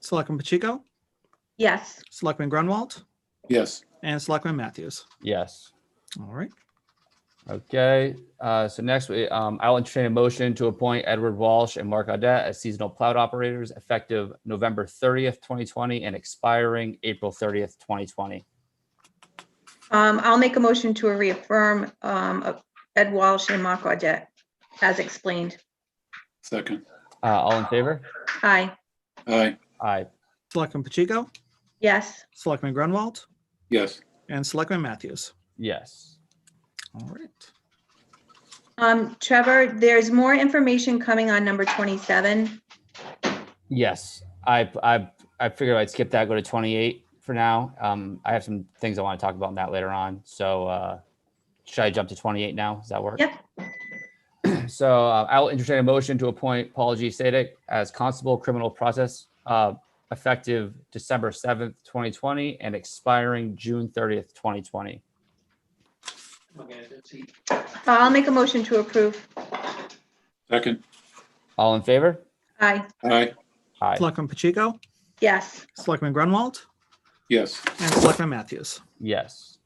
Selectman Pacheco, Yes, Selectman Grunwald, Yes, and Selectman Matthews. Yes. All right. Okay, uh, so next, we, um, I'll entertain a motion to appoint Edward Walsh and Mark Audette as seasonal plow operators effective November thirtieth, twenty twenty, and expiring April thirtieth, twenty twenty. um, I'll make a motion to reaffirm, um, of Ed Walsh and Mark Audette as explained. second. Uh, all in favor? Aye, Aye, Aye. Selectman Pacheco, yes, Selectman Grunwald, yes, and Selectman Matthews. Yes. All right. um, Trevor, there's more information coming on number twenty-seven. Yes, I, I, I figured I'd skip that, go to twenty-eight for now. Um, I have some things I want to talk about in that later on, so, uh, should I jump to twenty-eight now? Does that work? Yeah. So uh, I'll entertain a motion to appoint Paul G. Sadek as Constable Criminal Process, uh, effective December seventh, twenty twenty, and expiring June thirtieth, twenty twenty. I'll make a motion to approve. second. All in favor? Aye, Aye, Aye. Selectman Pacheco, yes, Selectman Grunwald, yes, and Selectman Matthews. Yes.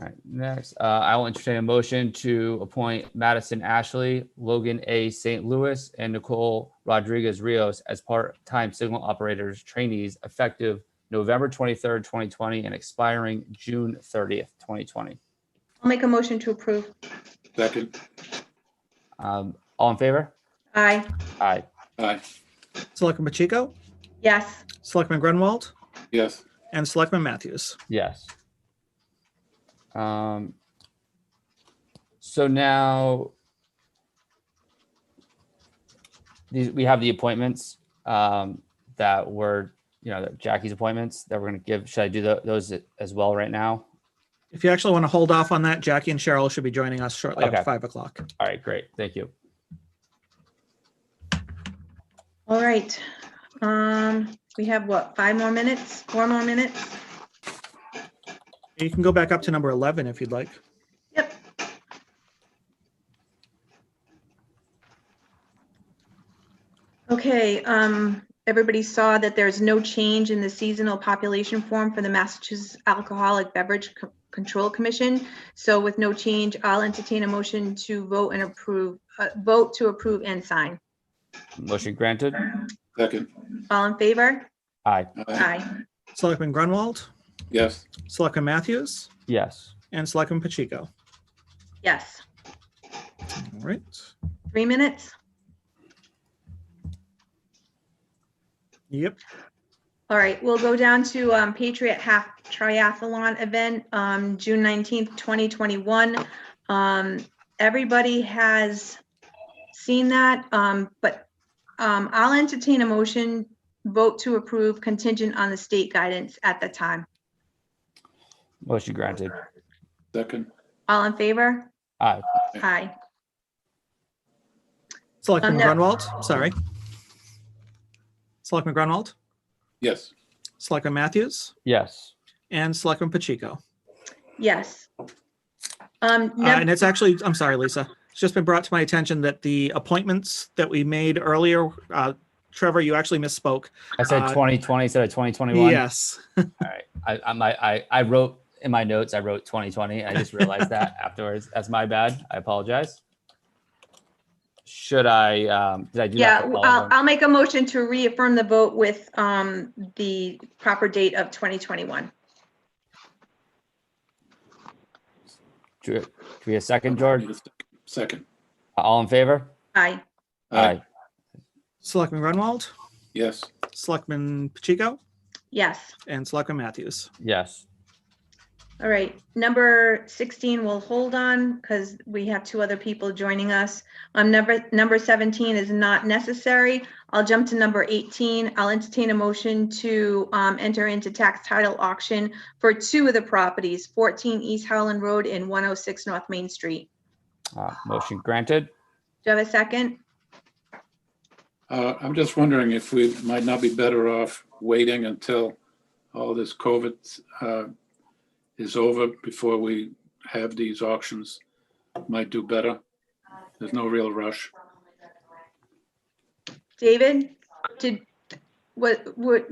All right, next, uh, I will entertain a motion to appoint Madison Ashley, Logan A. St. Louis, and Nicole Rodriguez Rios as part-time signal operators trainees effective November twenty-third, twenty twenty, and expiring June thirtieth, twenty twenty. I'll make a motion to approve. second. Um, all in favor? Aye, Aye. Aye, Selectman Pacheco, yes, Selectman Grunwald, yes, and Selectman Matthews. Yes. Um, so now these, we have the appointments, um, that were, you know, that Jackie's appointments that we're gonna give. Should I do tho- those as well right now? If you actually want to hold off on that, Jackie and Cheryl should be joining us shortly after Okay. five o'clock. All right, great. Thank you. all right. Um, we have what, five more minutes, four more minutes? You can go back up to number 11 if you'd like. Yep. Okay, um, everybody saw that there's no change in the seasonal population form for the Massachusetts Alcoholic Beverage Co- Control Commission. So with no change, I'll entertain a motion to vote and approve, uh, vote to approve and sign. Motion granted. second. All in favor? Aye. Aye, Aye. Selectman Grunwald, yes, Selectman Matthews, Yes. and Selectman Pacheco. Yes. All right. Three minutes? Yep. All right, we'll go down to um, Patriot Half Triathlon Event, um, June nineteenth, twenty twenty-one. Um, Everybody has seen that, um, but um, I'll entertain a motion, vote to approve contingent on the state guidance at the time. Motion granted. second. All in favor? Aye. Aye. Selectman Um, no. Grunwald, sorry. Selectman Grunwald, Yes, Selectman Matthews, Yes. and Selectman Pacheco. Yes. Um, Uh, num- And it's actually, I'm sorry, Lisa, it's just been brought to my attention that the appointments that we made earlier, uh, Trevor, you actually misspoke. I said Uh, twenty twenty instead of twenty twenty-one. Yes. All right. I, I, my, I, I wrote in my notes, I wrote 2020. and I just realized that afterwards. That's my bad. I apologize. Should I, um, did I do Yeah, uh, that? for all I'll, of them? I'll make a motion to reaffirm the vote with um, the proper date of twenty twenty-one. Ge- Give me a second, George. second. All in favor? Aye. Aye, Selectman Grunwald, yes, Selectman Pacheco, Yes, and Selectman Matthews. Yes. all right. Number 16, we'll hold on because we have two other people joining us. Um, number, number 17 is not necessary. I'll jump to number 18. I'll entertain a motion to um, enter into tax title auction for two of the properties, 14 East Howland Road and 106 North Main Street. Uh, motion granted. Do you have a second? Uh, I'm just wondering if we might not be better off waiting until all this COVID uh, is over before we have these auctions. Might do better. There's no real rush. David, did, what, what,